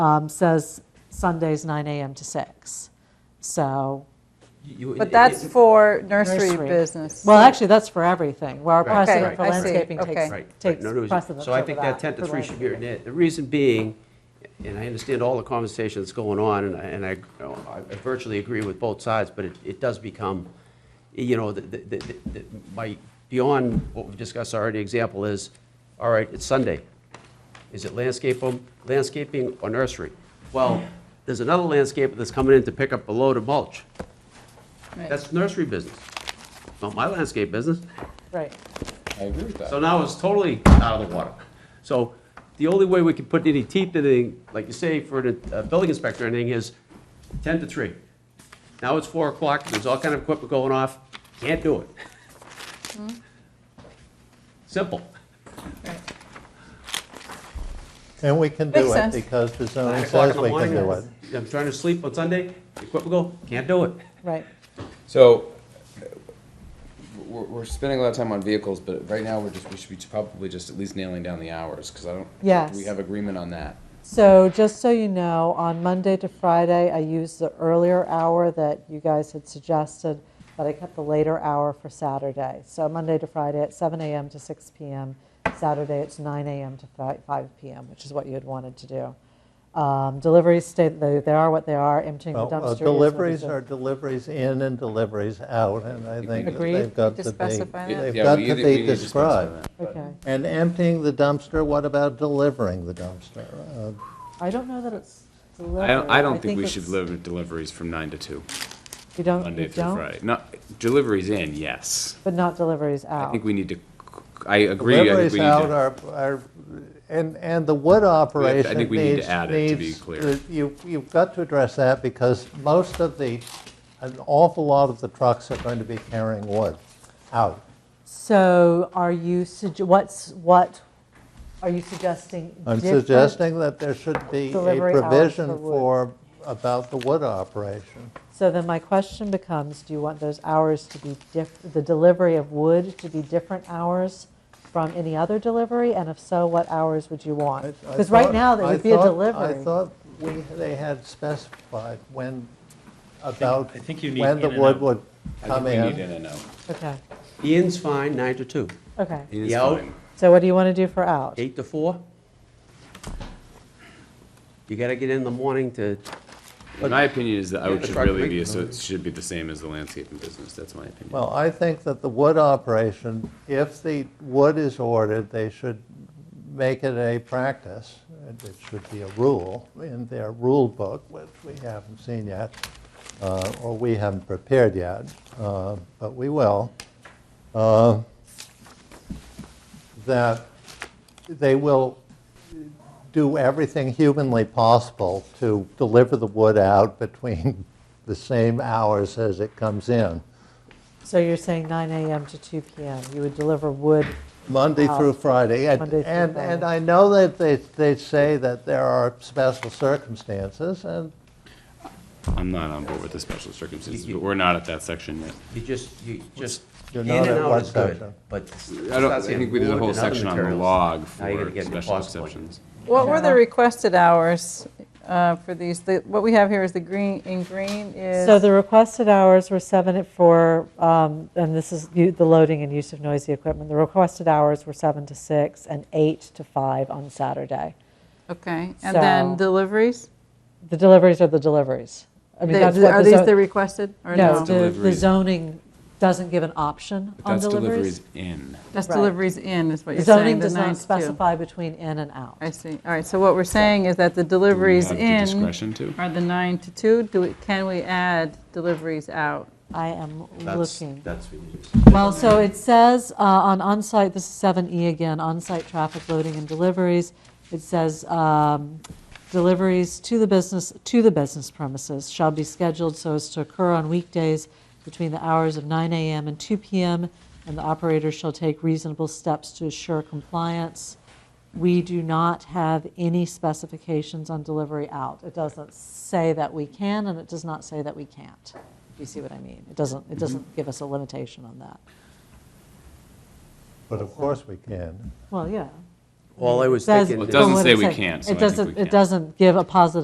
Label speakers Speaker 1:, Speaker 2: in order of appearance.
Speaker 1: um, says Sundays 9 AM to 6. So,
Speaker 2: You-
Speaker 3: But that's
Speaker 2: it-
Speaker 3: for nursery
Speaker 1: Nursery.
Speaker 3: business.
Speaker 1: well, actually, that's for everything, where our
Speaker 2: Right,
Speaker 1: precedent
Speaker 2: right,
Speaker 1: for
Speaker 2: right.
Speaker 1: landscaping
Speaker 3: Okay,
Speaker 1: takes
Speaker 3: okay.
Speaker 2: Right, right.
Speaker 1: takes
Speaker 2: No, no,
Speaker 1: precedence over that.
Speaker 2: So I think that 10 to
Speaker 1: for
Speaker 2: 3 should be
Speaker 1: landscaping.
Speaker 2: written in. The reason being, and I understand all the conversation that's going on, and I- and I you know, I virtually agree with both sides, but it- it does become, you know, the- the- the- the- my, beyond what we've discussed already, example is, all right, it's Sunday. Is it landscape, landscaping or nursery? Well, there's another landscaper that's coming in to pick up a load of mulch.
Speaker 3: Right.
Speaker 2: That's nursery business, not my landscape business.
Speaker 1: Right.
Speaker 4: I agree with that.
Speaker 2: So now it's totally out of the water. So the only way we could put any teeth in anything, like you say, for the uh, building inspector, or anything is 10 to 3. Now it's 4 o'clock, there's all kind of equipment going off, can't do it. Simple.
Speaker 5: And we can
Speaker 3: Makes
Speaker 5: do it
Speaker 3: sense.
Speaker 5: because the zoning
Speaker 2: Nine o'clock
Speaker 5: says
Speaker 2: in the
Speaker 5: we can
Speaker 2: morning,
Speaker 5: do it.
Speaker 2: I'm trying to sleep on Sunday, equipment go, can't do it.
Speaker 1: Right.
Speaker 4: So, uh, we're, we're spending a lot of time on vehicles, but right now, we're just, we should be probably just at least nailing down the hours, because I don't.
Speaker 1: Yes.
Speaker 4: We have agreement on that.
Speaker 1: So just so you know, on Monday to Friday, I used the earlier hour that you guys had suggested, but I kept the later hour for Saturday. So Monday to Friday at 7 AM to 6 PM, Saturday it's 9 AM to fi- 5 PM, which is what you had wanted to do. Um, Deliveries stay, they they are what they are, emptying the
Speaker 5: Well,
Speaker 1: dumpster.
Speaker 5: uh,
Speaker 1: is what it is.
Speaker 5: Deliveries are deliveries in and deliveries out, and I think that
Speaker 1: Agreed.
Speaker 5: they've got
Speaker 3: Need to
Speaker 5: to be,
Speaker 3: specify that?
Speaker 5: they've
Speaker 4: Yeah,
Speaker 5: got
Speaker 4: we
Speaker 5: to
Speaker 4: either- we
Speaker 5: be
Speaker 4: need to specify
Speaker 5: described.
Speaker 4: that.
Speaker 1: Okay.
Speaker 5: And emptying the dumpster, what about delivering the dumpster? Uh,
Speaker 1: I don't know that it's delivery.
Speaker 6: I don't, I don't think we
Speaker 1: it's-
Speaker 6: should deliver deliveries from nine to two,
Speaker 1: You don't,
Speaker 6: Monday
Speaker 1: you
Speaker 6: through
Speaker 1: don't,
Speaker 6: Friday. Not, deliveries in, yes.
Speaker 1: but not deliveries out.
Speaker 6: I think we need to, I agree, I think
Speaker 5: Deliveries
Speaker 6: we
Speaker 5: out
Speaker 6: need to.
Speaker 5: are, are, and, and the wood operation needs.
Speaker 6: think we need to add it to be
Speaker 5: needs-
Speaker 6: clear.
Speaker 5: uh, You, you've got to address that because most of the, an awful lot of the trucks are going to be carrying wood out.
Speaker 1: So are you, sug- what's, what, are you suggesting?
Speaker 5: I'm
Speaker 1: different-
Speaker 5: suggesting that there should be a
Speaker 1: delivery hours
Speaker 5: provision
Speaker 1: for wood.
Speaker 5: for, about the wood operation.
Speaker 1: So then my question becomes, do you want those hours to be diff, the delivery of wood to be different hours from any other delivery? And if so, what hours would you
Speaker 5: I- I
Speaker 1: want? Because right
Speaker 5: thought-
Speaker 1: now, there
Speaker 5: I
Speaker 1: would be a
Speaker 5: thought- I
Speaker 1: delivery.
Speaker 5: thought we, they had specified when, about,
Speaker 7: I think you need
Speaker 5: when the
Speaker 7: in and
Speaker 5: wood
Speaker 7: out.
Speaker 5: would
Speaker 6: I think
Speaker 5: come
Speaker 6: we need
Speaker 5: in.
Speaker 6: in and out.
Speaker 1: Okay,
Speaker 2: The in's fine, 9 to 2.
Speaker 1: okay.
Speaker 6: It is
Speaker 2: The out-
Speaker 6: fine.
Speaker 1: So what do you want to do for out?
Speaker 2: 8 to 4. You gotta get in the morning to,
Speaker 6: My opinion is that I
Speaker 2: Yeah,
Speaker 6: would should
Speaker 2: truck
Speaker 6: really
Speaker 2: break.
Speaker 6: be, so it should be the same as the landscaping business, that's my opinion.
Speaker 5: Well, I think that the wood operation, if the wood is ordered, they should make it a practice. and It should be a rule in their rule book, which we haven't seen yet, uh, or we haven't prepared yet, uh, but we will. uh, That they will do everything humanly possible to deliver the wood out between the same hours as it comes in.
Speaker 1: So you're saying 9 AM to 2 PM, you would deliver wood,
Speaker 5: Monday
Speaker 1: Wow.
Speaker 5: through Friday. And,
Speaker 1: Monday through
Speaker 5: and,
Speaker 1: Friday.
Speaker 5: and I know that they, they say that there are special circumstances, and
Speaker 6: I'm not on board with the special circumstances, but we're not at that section yet.
Speaker 2: you just, you just,
Speaker 5: You're
Speaker 2: in
Speaker 5: not
Speaker 2: and
Speaker 5: at one
Speaker 2: out is good,
Speaker 5: section.
Speaker 2: but.
Speaker 6: I don't, I think we did a whole section on the log
Speaker 2: Now you gotta
Speaker 6: for
Speaker 2: get the
Speaker 6: special
Speaker 2: cost point.
Speaker 6: exceptions.
Speaker 3: What were the requested hours uh, for these? The- What we have here is the green, in green is.
Speaker 1: So the requested hours were seven at four, um, and this is u- the loading and use of noisy equipment. The requested hours were seven to six and eight to five on Saturday.
Speaker 3: Okay, and then
Speaker 1: So-
Speaker 3: deliveries?
Speaker 1: The deliveries are the deliveries. I mean,
Speaker 3: They-
Speaker 1: that's what
Speaker 3: Are
Speaker 1: the
Speaker 3: these
Speaker 1: zo-
Speaker 3: the requested or
Speaker 1: No, the-
Speaker 3: no?
Speaker 1: the
Speaker 6: Deliveries.
Speaker 1: zoning doesn't give an option
Speaker 6: But
Speaker 1: on
Speaker 6: that's
Speaker 1: deliveries.
Speaker 6: deliveries in.
Speaker 3: That's
Speaker 1: Right.
Speaker 3: deliveries in is what
Speaker 1: The
Speaker 3: you're saying,
Speaker 1: Zoning
Speaker 3: the
Speaker 1: does
Speaker 3: nine
Speaker 1: not
Speaker 3: to two.
Speaker 1: specify between in and out.
Speaker 3: I see. All right, so what we're saying is that the deliveries
Speaker 6: have the
Speaker 3: in
Speaker 6: discretion to?
Speaker 3: are the nine to two. Do, we- can we add deliveries out?
Speaker 1: I am
Speaker 2: That's,
Speaker 1: looking.
Speaker 2: that's what it is.
Speaker 1: Well, so it says uh, on onsite, this is 7E again, onsite traffic loading and deliveries. It says um, deliveries to the business, to the business premises shall be scheduled so as to occur on weekdays between the hours of 9 AM and 2 PM, and the operator shall take reasonable steps to assure compliance. We do not have any specifications on delivery out. It doesn't say that we can, and it does not say that we can't. You see what I mean? It doesn't, it doesn't give us a limitation on that.
Speaker 5: but of course we can.
Speaker 1: Well, yeah.
Speaker 2: all I was
Speaker 1: Says-
Speaker 2: thinking.
Speaker 6: Well, it
Speaker 2: is-
Speaker 1: But
Speaker 6: doesn't
Speaker 1: what
Speaker 6: say we
Speaker 1: said-
Speaker 6: can't, so I
Speaker 1: It
Speaker 6: think we
Speaker 1: doesn't,
Speaker 6: can.
Speaker 1: it doesn't give a positive